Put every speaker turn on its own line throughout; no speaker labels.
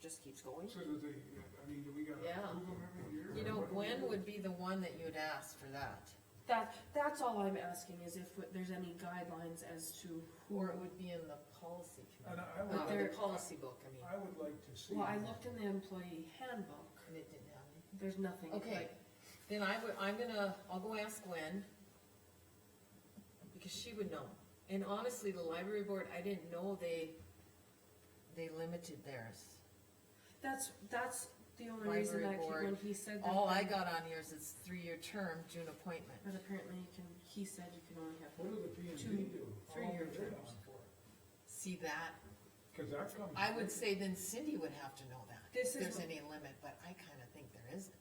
just keeps going.
So do they, I mean, do we gotta
Yeah.
approve them every year?
You
or
know,
what do we
Gwen
do?
would be the one that you'd ask for that,
That, that's all I'm asking is if there's any guidelines as to who,
or it would be in the policy
And
committee,
I I
uh,
would,
the
there-
policy book, I mean,
I would like to see.
well, I looked in the employee handbook,
and it didn't have any.
there's nothing.
Okay,
like-
then I would, I'm gonna, I'll go ask Gwen, because she would know. And honestly, the library board, I didn't know they, they limited theirs.
That's, that's the only reason I
Library
keep,
board.
when he said that.
All I
then-
got on here is it's three-year term, June appointment.
But apparently you can, he said you can only have
What do the P and
Two-
D do? How
three
long
year
are they
terms.
on for?
See that?
Cause that comes.
I would say then Cindy would have to know that,
This
if
is
there's
what-
any limit, but I kinda think there isn't.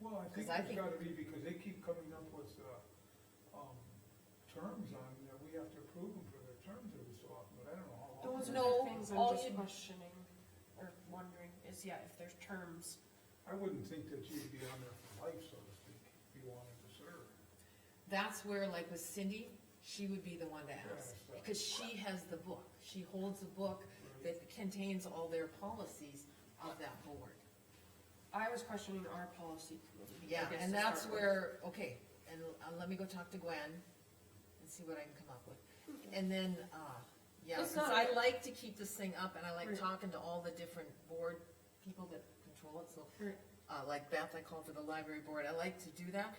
Well, I think
I
there's
think-
gotta be, because they keep coming up with, uh, um, terms on, that we have to approve them for their terms every so often, but I don't know how long.
Those are
No,
the things
all
I'm just
you'd-
questioning or wondering is, yeah, if there's terms.
I wouldn't think that you'd be on there for life, so to speak, if you wanted to serve.
That's where, like with Cindy, she would be the one to ask,
Yeah.
because she has the book, she holds a book that contains all their policies of that board.
I was questioning our policy committee. I
Yeah,
guess,
and
to
that's
start with.
where, okay, and uh, let me go talk to Gwen and see what I can come up with. And then, uh, yeah,
It's
'cause
not-
I like to keep this thing up and I like
Right.
talking to all the different board people that control it, so
Right.
uh, like Beth, I called for the library board, I like to do that,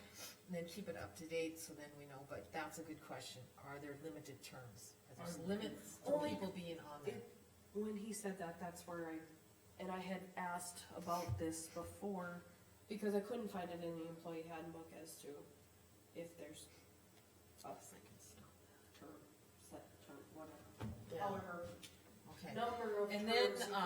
and then keep it up to date, so then we know, but that's a good question, are there limited terms? Are there
I'm-
limits to
Only-
people being on there?
When he said that, that's where I, and I had asked about this before, because I couldn't find it in the employee handbook as to if there's a term, set term, whatever.
Yeah.
However,
Okay,
number of terms.
and then,
you
uh,